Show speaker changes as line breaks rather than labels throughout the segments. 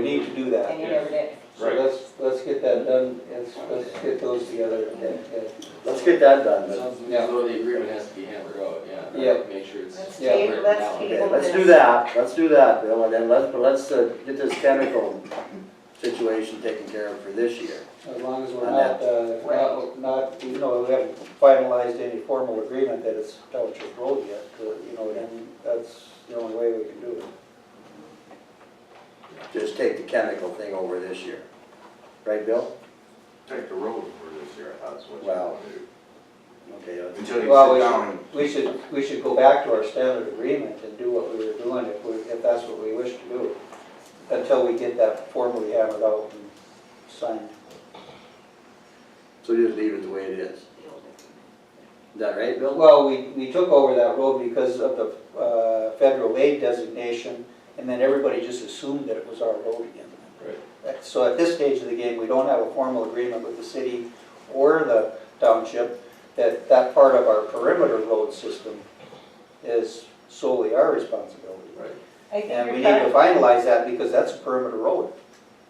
need to do that.
and you never did.
So let's, let's get that done, let's, let's get those together.
Let's get that done then.
Sounds as though the agreement has to be hammered out, yeah.
Yeah.
Make sure it's.
Let's
Yeah.
table,
written
let's
down.
Okay,
table
let's do
this.
that, let's do that, Bill, and then let's, but let's uh, get this chemical situation taken care of for this year.
As long as we're not, uh, not, not, you know, we haven't finalized any formal agreement that it's township road yet, but, you know, then that's the only way we can do it.
Just take the chemical thing over this year. Right, Bill?
Take the road for this year, that's what you
Wow.
want to do.
Okay, uh,
Until
Well,
you
we
sit down and.
should, we should, we should go back to our standard agreement and do what we were doing if we, if that's what we wish to do. Until we get that formally hammered out and signed.
so just leave it the way it is. Is that right, Bill?
Well, we, we took over that road because of the, uh, federal aid designation, and then everybody just assumed that it was our road again.
Right.
Right. So at this stage of the game, we don't have a formal agreement with the city or the township that that part of our perimeter road system is solely our responsibility.
Right.
I think
And we
you're
need to
talking,
finalize that because that's a perimeter road.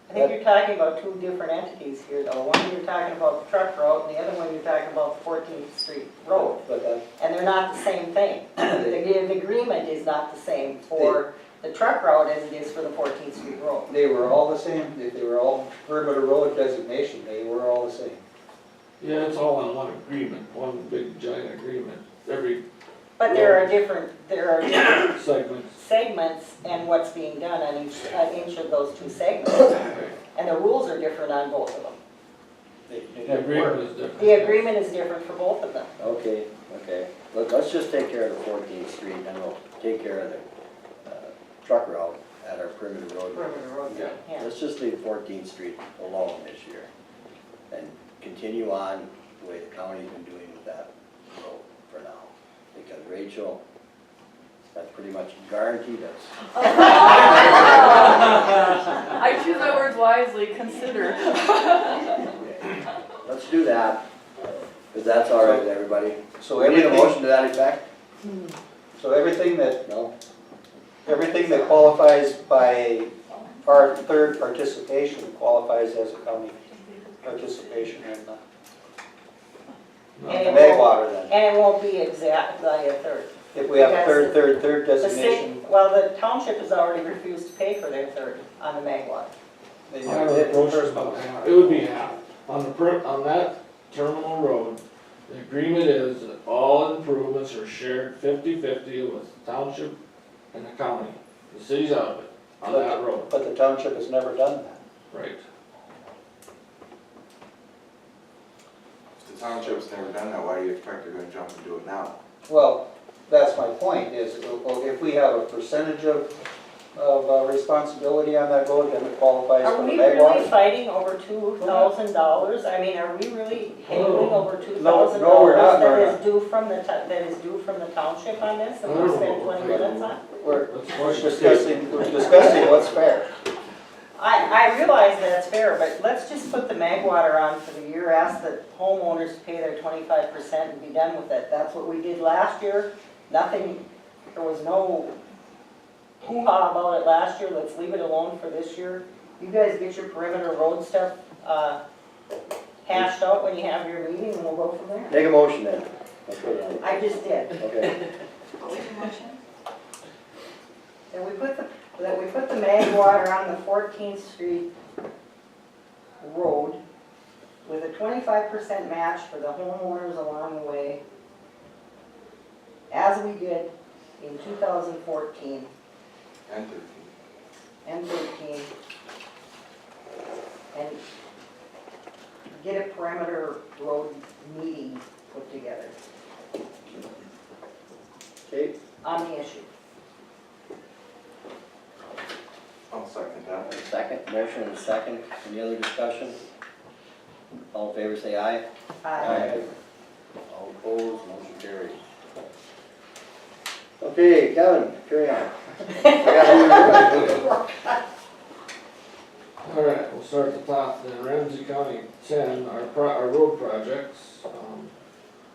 I think you're talking about two different entities here though. One you're talking about the truck route and the other one you're talking about Fourteenth Street Road.
But that,
And they're not the same thing. The the agreement is not the same for the truck route as it is for the Fourteenth Street Road.
they were all the same, they they were all perimeter road designation, they were all the same.
Yeah, it's all in one agreement, one big giant agreement, every
But there are different, there are different
segment.
segments and what's being done on each, on each of those two segments.
Right.
And the rules are different on both of them.
They- they
The
didn't
agreement
work.
is different.
The agreement is different for both of them.
Okay, okay. Let, let's just take care of the Fourteenth Street and we'll take care of the, uh, truck route at our perimeter road.
Perimeter road,
Yeah.
yeah.
Let's just leave Fourteenth Street alone this year and continue on the way the county's been doing with that road for now. Because Rachel, that's pretty much guaranteed us.
I choose my words wisely, consider.
Let's do that, because that's all right with everybody.
So
We need a
everything,
motion to that effect?
so everything that,
No?
everything that qualifies by our third participation qualifies as a county participation in the
No.
And it
Mag
won't-
water then.
And it won't be exactly a third.
If we have third, third, third
The city,
designation,
well, the township has already refused to pay for their third on the mag lot.
then
I was
you're
approached
first.
about half. It would be half. On the per, on that terminal road, the agreement is that all improvements are shared fifty-fifty with the township and the county. The city's out of it, on that road.
But the township has never done that.
Right.
If the township's never done that, why do you expect they're gonna jump and do it now?
Well, that's my point, is well, if we have a percentage of, of uh, responsibility on that road, then it qualifies
Are
for the
we
mag
really
water.
fighting over two thousand dollars? I mean, are we really handling over two
Oh. No,
thousand
no,
dollars
we're not,
that
we're
is due from the, to- that is due from the township on this? And
I don't
we
Oh,
know
spent
what
twenty
we're
minutes on?
We're
Let's
we're
watch the tape.
discussing, we're discussing what's fair.
I, I realize that's fair, but let's just put the mag water on for the year, ask the homeowners to pay their twenty-five percent and be done with it. That's what we did last year. Nothing, there was no hoo-ha about it last year. Let's leave it alone for this year. You guys get your perimeter road stuff, uh, hashed out when you have your meeting and we'll go from there.
Make a motion then. Let's put it on.
I just did.
Okay,
That we put the, that we put the mag water on the Fourteenth Street road with a twenty-five percent match for the homeowners along the way, as we did in two thousand fourteen
And thirteen.
and thirteen. And get a perimeter road meeting put together
okay,
on the issue.
I'll second
a
that.
second, motion and a second. Any other discussion? All in favor, say aye.
Uh,
All opposed, motion carried. Okay, Kevin, carry on. I got one more.
All right, we'll start at the top, then Ramsey County ten, our pro, our road projects, um,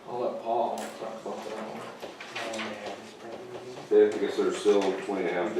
I'll let Paul talk about that one.
They have to consider still twenty and a half